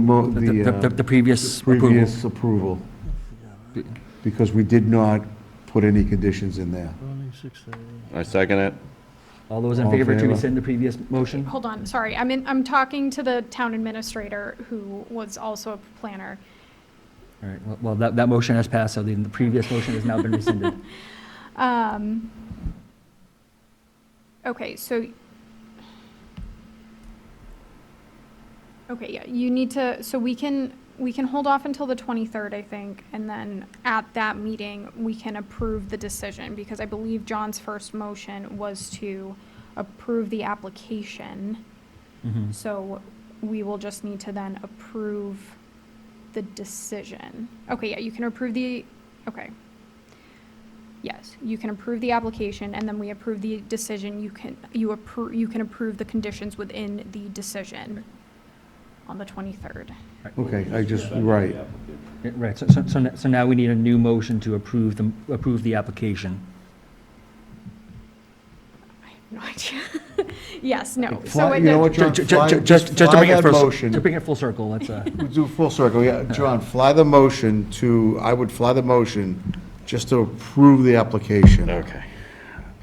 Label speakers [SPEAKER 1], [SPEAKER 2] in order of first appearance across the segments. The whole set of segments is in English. [SPEAKER 1] Mo-
[SPEAKER 2] The- The
[SPEAKER 1] The
[SPEAKER 2] the previous
[SPEAKER 1] uh,
[SPEAKER 2] approval.
[SPEAKER 1] previous approval, because we did not put any conditions in there.
[SPEAKER 3] I second it.
[SPEAKER 2] All those in
[SPEAKER 1] All in
[SPEAKER 2] favor to
[SPEAKER 1] favor?
[SPEAKER 2] rescind the previous motion?
[SPEAKER 4] Hold on, sorry, I'm in, I'm talking to the town administrator, who was also a planner.
[SPEAKER 2] All right, well- well, that, that motion has passed, so the the previous motion has now been rescinded.
[SPEAKER 4] Um, Okay, so. Okay, yeah, you need to, so we can, we can hold off until the 23rd, I think, and then at that meeting, we can approve the decision, because I believe John's first motion was to approve the application.
[SPEAKER 2] Mhm.
[SPEAKER 4] So we will just need to then approve the decision. Okay, yeah, you can approve the, okay. Yes, you can approve the application and then we approve the decision. You can, you approve, you can approve the conditions within the decision on the 23rd.
[SPEAKER 1] Okay, I just, right.
[SPEAKER 2] Yeah, Right, so, so- so, n- so now we need a new motion to approve the, approve the application.
[SPEAKER 4] I have no idea. Yes, no. So
[SPEAKER 1] Fly-
[SPEAKER 4] it-
[SPEAKER 1] You know what,
[SPEAKER 2] Ju-
[SPEAKER 1] John?
[SPEAKER 2] ju- ju-
[SPEAKER 1] Fly-
[SPEAKER 2] ju- Just, just to
[SPEAKER 1] fly
[SPEAKER 2] bring it
[SPEAKER 1] that
[SPEAKER 2] full,
[SPEAKER 1] motion.
[SPEAKER 2] to bring it full circle, let's, uh,
[SPEAKER 1] We Do a full circle, yeah. John, fly the motion to, I would fly the motion just to approve the application.
[SPEAKER 3] Okay.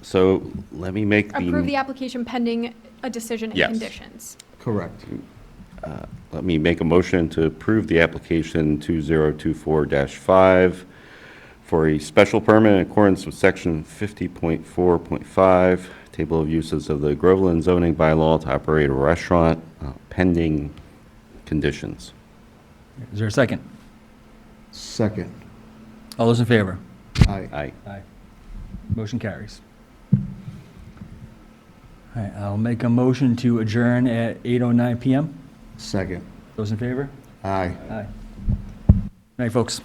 [SPEAKER 3] So let me make
[SPEAKER 4] Approve the
[SPEAKER 3] the,
[SPEAKER 4] application pending a decision and
[SPEAKER 3] Yes.
[SPEAKER 4] conditions.
[SPEAKER 1] Correct.
[SPEAKER 3] let me make a motion to approve the application 2024-5 for a special permit in accordance with section 50.4.5, table of uses of the Groveland zoning bylaw to operate a restaurant uh, pending conditions.
[SPEAKER 2] is there a second?
[SPEAKER 1] Second.
[SPEAKER 2] All those in favor?
[SPEAKER 1] Aye.
[SPEAKER 3] Aye.
[SPEAKER 2] Aye. Motion carries. All right, I'll make a motion to adjourn at 8:09 PM.
[SPEAKER 1] Second.
[SPEAKER 2] Those in favor?
[SPEAKER 1] Aye.
[SPEAKER 2] Aye. Night, folks.